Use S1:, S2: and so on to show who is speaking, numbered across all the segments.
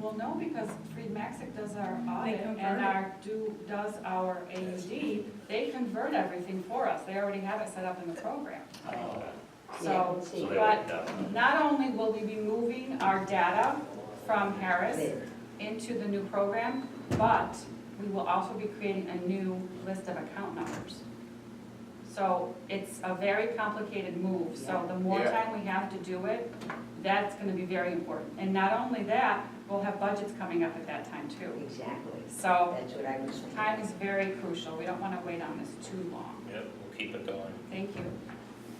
S1: Well, no, because Fried Maxic does our audit
S2: convert
S1: and
S2: it.
S1: our, do, does our AUD. They convert everything for us. They already have it set up in the program. So,
S3: So they
S1: but
S3: already done it.
S1: Not only will we be moving our data from Harris into the new program, but we will also be creating a new list of account numbers. So it's a very complicated move, so the more
S4: Yeah.
S1: time we have to do it, that's gonna be very important. And not only that, we'll have budgets coming up at that time too.
S2: Exactly,
S1: So
S2: that's what I was thinking.
S1: time is very crucial, we don't wanna wait on this too long.
S3: Yep, we'll keep it going.
S1: Thank you.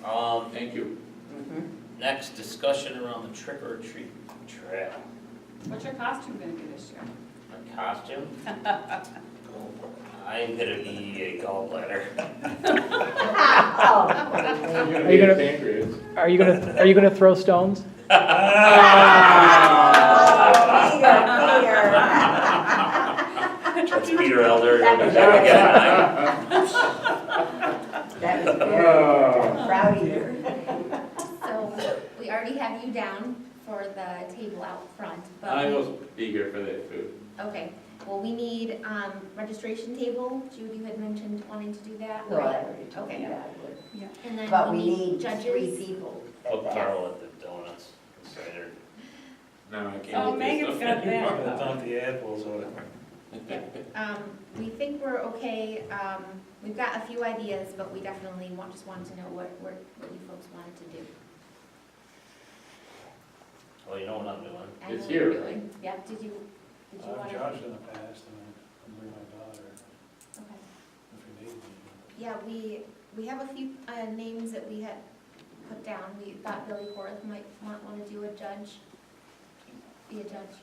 S3: Um,
S4: Thank you.
S2: Mhm.
S3: next discussion around the trick or treat trail.
S1: What's your costume gonna be this year?
S3: My costume? I'm gonna be a gallbladder.
S2: Oh, wait, wait.
S5: you gonna-
S4: pancreas?
S5: Are you gonna, are you gonna throw stones?
S2: Ah! Oh, Peter, Peter.
S3: That's Peter Elder.
S2: That-
S3: That guy.
S2: That was
S4: Oh.
S2: very proud of you.
S6: So, we already have you down for the table out front,
S4: I
S6: but,
S4: was eager for that food.
S6: okay. Well, we need, um, registration table, Jude, you had mentioned wanting to do that.
S2: Well, I already told you
S6: Okay.
S2: that I would.
S6: And
S2: But
S6: then
S2: we need three
S6: judges.
S2: people.
S3: Put Carl at the donuts, cider.
S4: No, I can't.
S1: Oh,
S4: eat this
S1: Megan's
S4: stuff
S1: got
S4: anymore.
S1: that.
S7: the apples or
S6: Um, we think we're okay, um, we've got a few ideas, but we definitely want, just wanted to know what, what what you folks wanted to do.
S3: Well, you know what I'm doing.
S6: I know
S4: It's
S6: what you're
S4: here. Uh,
S6: doing. Yep, did you, did you
S7: I've
S6: want to?
S7: judged in the past and I bring my daughter
S6: Okay.
S7: if you need me.
S6: Yeah, we, we have a few uh, names that we had put down. We thought Billy Horace might want, want to do a judge, be a judge.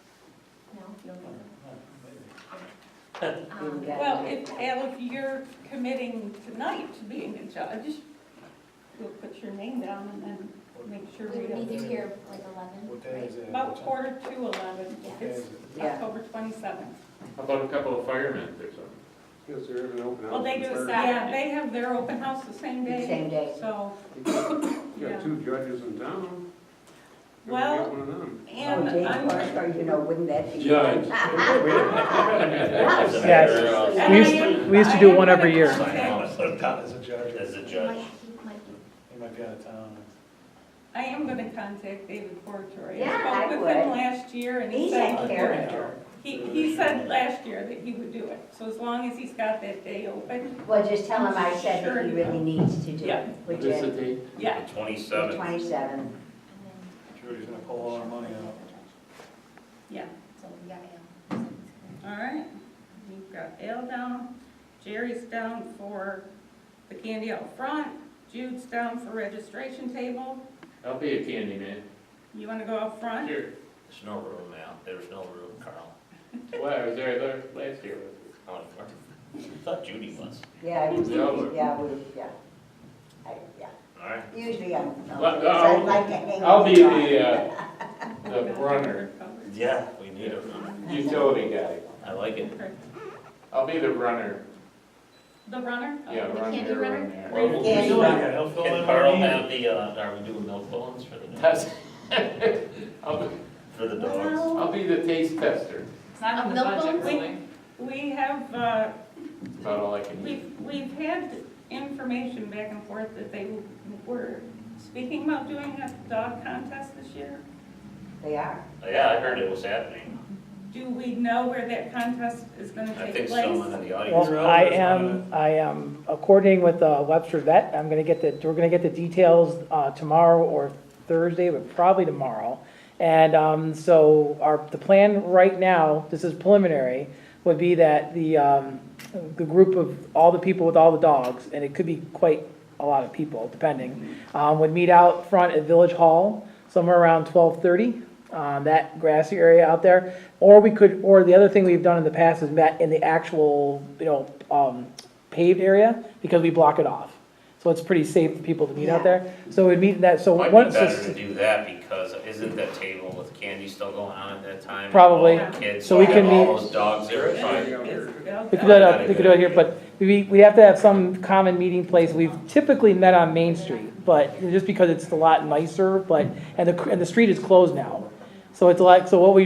S6: No, you don't think so? Um,
S2: Yeah.
S8: Well, if, Al, if you're committing tonight to being a judge, we'll put your name down and then make sure
S6: We
S8: we
S6: would
S8: don't.
S6: need to hear like eleven,
S7: What day
S6: right?
S7: is it?
S8: About quarter to eleven,
S7: What day is
S8: it's
S7: it?
S2: Yeah.
S8: October twenty-seventh.
S4: How about a couple of firemen or something? Because they're having open
S1: Well, they do a
S8: Yeah,
S1: Saturday.
S8: they have their open house the same day,
S2: Same day.
S8: so,
S4: You got two judges in town. Maybe
S8: Well,
S4: get one of them.
S2: Oh,
S8: and
S2: Jane
S8: I'm,
S2: Clark, or, you know, wouldn't that be?
S4: Judge.
S3: As a
S5: Yes.
S3: matter of-
S8: And I
S5: used-
S8: am-
S5: we used to
S8: I
S5: do
S8: am
S5: one every
S8: gonna
S5: year.
S8: contact-
S7: As a judge.
S3: As a
S6: He might,
S3: judge.
S6: he might be
S7: He might be out of town.
S8: I am gonna contact David Portori.
S2: Yeah,
S8: I
S2: I
S8: spoke with him
S2: would.
S8: last year and he
S2: He's
S8: said,
S2: a character.
S8: he, he said last year that he would do it. So as long as he's got that day open,
S2: Well, just tell him I said that he
S8: Sure.
S2: really needs to do
S8: Yeah.
S2: it, which
S4: Just a
S2: is
S4: date.
S8: yeah,
S2: the
S3: Twenty-seven.
S2: twenty-seventh.
S6: and then
S7: Judy's gonna pull all our money out.
S8: yeah.
S6: so we got him.
S8: All right, we've got Al down, Jerry's down for the candy out front, Jude's down for registration table.
S4: I'll be a candy man.
S8: You wanna go out front?
S4: Sure.
S3: There's no room now. There's no room, Carl.
S4: Why, I was there la- last year.
S3: I wanna- I thought Judy was.
S2: Yeah, we,
S4: Yeah, we're-
S2: yeah, we, yeah. I, yeah,
S3: All right.
S2: usually I'm,
S4: But, uh,
S2: I'd like to
S1: Oh,
S2: hang.
S4: I'll be
S2: out.
S4: the, uh, the runner,
S3: Yeah. We need a room.
S4: utility guy.
S3: I like it.
S8: Okay.
S4: I'll be the runner,
S8: The runner?
S4: yeah,
S6: Uh, The
S4: run
S6: candy
S4: here, run
S6: runner?
S4: there.
S3: Well, we'll-
S2: Yeah, you are.
S7: He'll fill
S3: Can
S7: in
S3: Carl
S7: our need.
S3: have the, uh, are we doing milk bones for the, dogs?
S4: That's- I'll be,
S3: for the
S8: Oh,
S3: dogs?
S4: I'll be the taste tester,
S1: It's not
S6: Uh,
S1: in the
S6: milk
S1: budget,
S6: bones?
S1: really.
S8: We have, uh,
S4: That's about all I can eat.
S8: we've, we've had information back and forth that they were speaking about doing a dog contest this year.
S2: They are.
S3: Uh, Yeah, I heard it was happening.
S8: Do we know where that contest is gonna
S3: I
S8: take
S3: think
S8: place?
S3: someone in the audience.
S5: Well, I am, I am uh, coordinating with uh, Webster Vet. I'm gonna get the, we're gonna get the details uh, tomorrow or Thursday, but probably tomorrow. And um, so our, the plan right now, this is preliminary, would be that the, um, the group of all the people with all the dogs, and it could be quite a lot of people, depending, um, would meet out front at Village Hall somewhere around twelve-thirty, um, that grassy area out there. Or we could, or the other thing we've done in the past is met in the actual, you know, um, paved area, because we block it off. So it's pretty safe for people to meet out
S2: Yeah.
S5: there. So we'd meet in that, so
S3: Might
S5: once.
S3: be
S5: this-
S3: better to do that because isn't that table with candy still going on at that time?
S5: Probably.
S3: All the Kids,
S5: So we
S3: all
S5: can
S3: all
S5: meet-
S3: those dogs, they're fine.
S5: We
S8: It's-
S5: could do it, we could do it here, but we, we have to have some common meeting place. We've typically met on Main Street, but just because it's a lot nicer, but, and the, and the street is closed now. So it's like, so what we